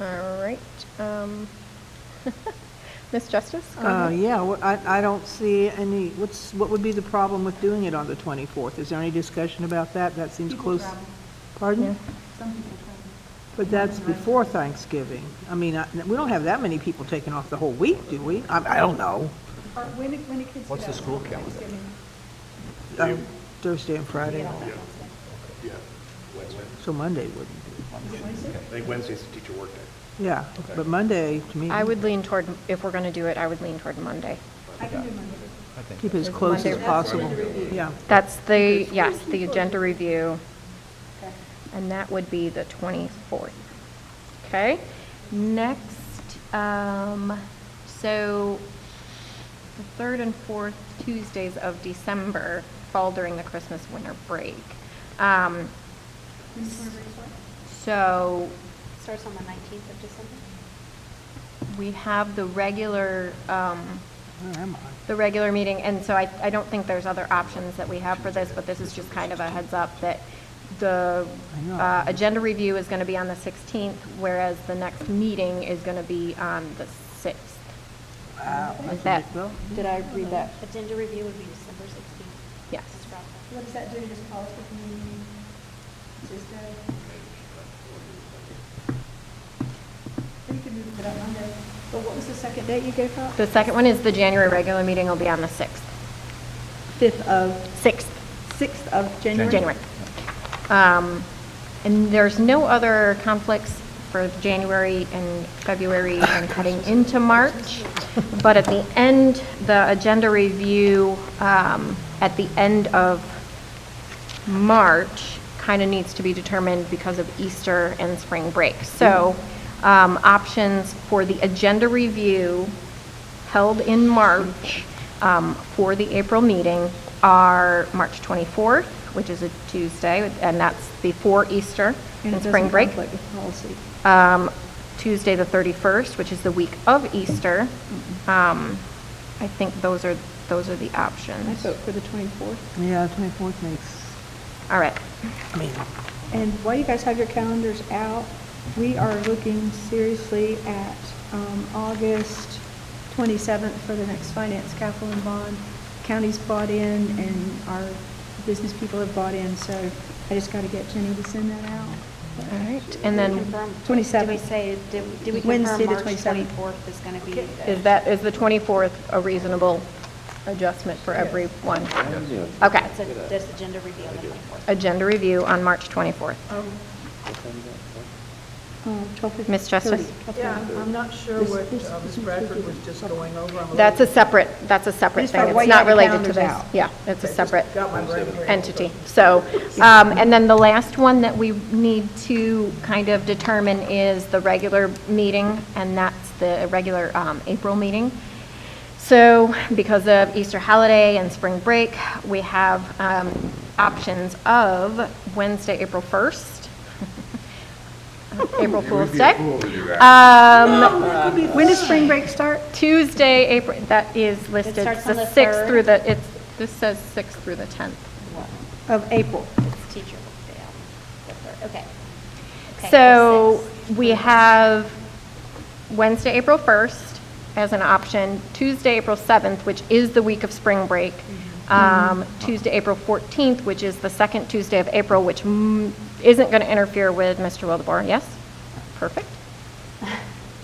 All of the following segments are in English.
All right. um, Ms. Justice? go Uh, ahead. Yeah, wh- I I don't see any, what's, what would be the problem with doing it on the 24th? Is there any discussion about that? That seems People close. travel. Pardon? Some people travel. But that's before Thanksgiving. I mean, I- we don't have that many people taking off the whole week, do we? I I don't know. Or when, do- when do kids get What's the out? school calendar? Thanksgiving. Um, Thursday and Friday, Yeah, Wednesday. so Monday wouldn't. Is it Wednesday? I think Wednesday's the teacher workday. Yeah, Okay. but Monday, to me, I would lean toward, if we're going to do it, I would lean toward Monday. I can do Monday. keep it as close as Monday. possible. Yeah, That's the, yes, the agenda review, Okay. and that would be the 24th. Okay? Next, um, so the third and fourth Tuesdays of December fall during the Christmas winter break. Um, Winter resort? So Starts on the 19th of December? we have the regular, um, where am I? the regular meeting, and so I, I don't think there's other options that we have for this, but this is just kind of a heads up that the I know. uh, agenda review is going to be on the 16th, whereas the next meeting is going to be on the 6th. Wow. Is that's a that, big bill. did I read that? Agenda review would be December 16th. Yes. That's right. What does that do, just call it the community, just, uh, we could move it up Monday. But what was the second date you gave out? The second one is the January regular meeting will be on the 6th, fifth of, 6th. sixth of January. Um, And there's no other conflicts for January and February and cutting into March. But at the end, the agenda review, um, at the end of March, kind of needs to be determined because of Easter and spring break. So um, options for the agenda review held in March um, for the April meeting are March 24th, which is a Tuesday, and that's before Easter and spring break. policy. Um, Tuesday, the 31st, which is the week of Easter. Um, I think those are, those are the I options. vote for the 24th. Yeah, 24th makes, All right. I mean, And while you guys have your calendars out, we are looking seriously at um, August 27th for the next finance capital and bond. County's bought in and our business people have bought in, so I just got to get Jenny to send that out. Uh, All right. And then, Confirm- 27th. Did we say, did did we Wednesday, confirm the March 27th. 24th is going to be? uh, is that, is the 24th a reasonable adjustment for everyone? Okay. That's a- That's agenda review on the 24th. Agenda review on March 24th. Um, 12:30. Ms. Justice? Yeah, I'm- I'm not sure This- what this- uh, Ms. Bradford was just going over. I'm That's a little- separate, that's a separate Just thing. by way It's not you have the related to calendars this. out. Yeah, it's a I just separate Got my brain raised. entity. So, um, and then the last one that we need to kind of determine is the regular meeting, and that's the regular um, April meeting. So because of Easter holiday and spring break, we have um, options of Wednesday, April 1st, April Fool's Day. Um, When does spring break start? Tuesday, April, that is listed, starts on the the 6th third. through the, it's, this says 6th through the 10th. Of April. It's teacher work day on the third. Okay. Okay, So six. we have Wednesday, April 1st as an option, Tuesday, April 7th, which is the week of spring break, Mm-hmm. um, Tuesday, April 14th, which is the second Tuesday of April, which mm, isn't going to interfere with Mr. Wildebohr, yes? Perfect.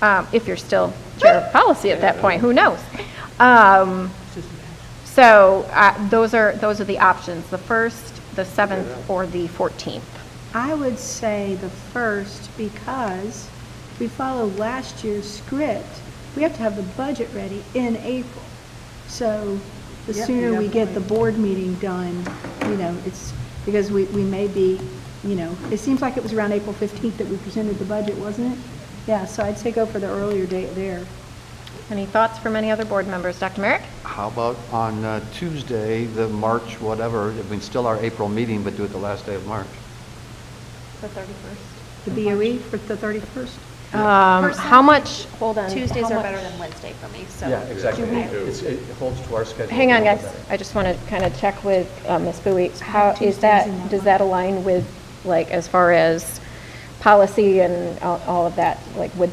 Um, If you're still chair of policy at that point, who knows? Um, So uh, those are, those are the options, the 1st, the 7th, or the 14th. I would say the first because we follow last year's script. We have to have the budget ready in April. So the Yep, sooner we get the definitely. board meeting done, you know, it's, because we, we may be, you know, it seems like it was around April 15th that we presented the budget, wasn't it? Yeah, so I'd say go for the earlier date there. Any thoughts from any other board members? Dr. Merrick? How about on uh, Tuesday, the March whatever, I mean, still our April meeting, but do it the last day of March? The 31st. The BOE for the 31st? Um, how much, hold on. Tuesdays how are much- better than Wednesday for me, so. It's- It holds to our schedule. Hang on, guys. I just want to kind of check with uh, Ms. Bowie. How, is Tuesdays that, in that does month. that align with, like, as far as policy and all all of that, like, would